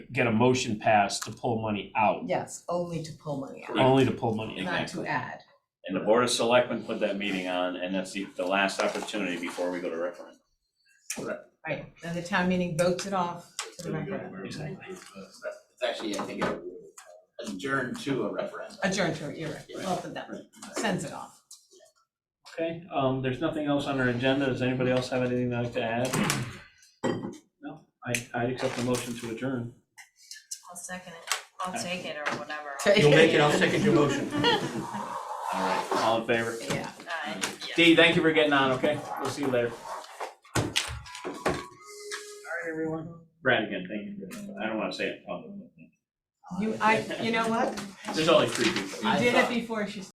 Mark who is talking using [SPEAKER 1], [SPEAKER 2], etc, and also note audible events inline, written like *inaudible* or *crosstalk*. [SPEAKER 1] get a motion passed to pull money out,
[SPEAKER 2] Yes, only to pull money out,
[SPEAKER 1] only to pull money out.
[SPEAKER 2] not to add.
[SPEAKER 3] And the Board of Selectmen put that meeting on, and that's the, the last opportunity before we go to referendum.
[SPEAKER 2] Right, then the town meeting votes it off to the referendum,
[SPEAKER 1] Exactly.
[SPEAKER 4] It's actually, I think, adjourned to a referendum.
[SPEAKER 2] adjourn to, it, you're right, both of them, sends it off.
[SPEAKER 1] Okay, um, there's nothing else on our agenda. Does anybody else have anything they'd like to add? No, I, I'd accept the motion to adjourn.
[SPEAKER 5] I'll second it, I'll take it or whatever.
[SPEAKER 2] Take
[SPEAKER 6] You'll make it, I'll second your motion.
[SPEAKER 3] All right, all in favor?
[SPEAKER 2] *laughs* Yeah.
[SPEAKER 5] Aye.
[SPEAKER 3] Dee, thank you for getting on, okay? We'll see you later. All right, everyone. Brad again, thank you. I don't wanna say it publicly.
[SPEAKER 2] You, I, you know what,
[SPEAKER 3] There's only three people.
[SPEAKER 2] you did it before she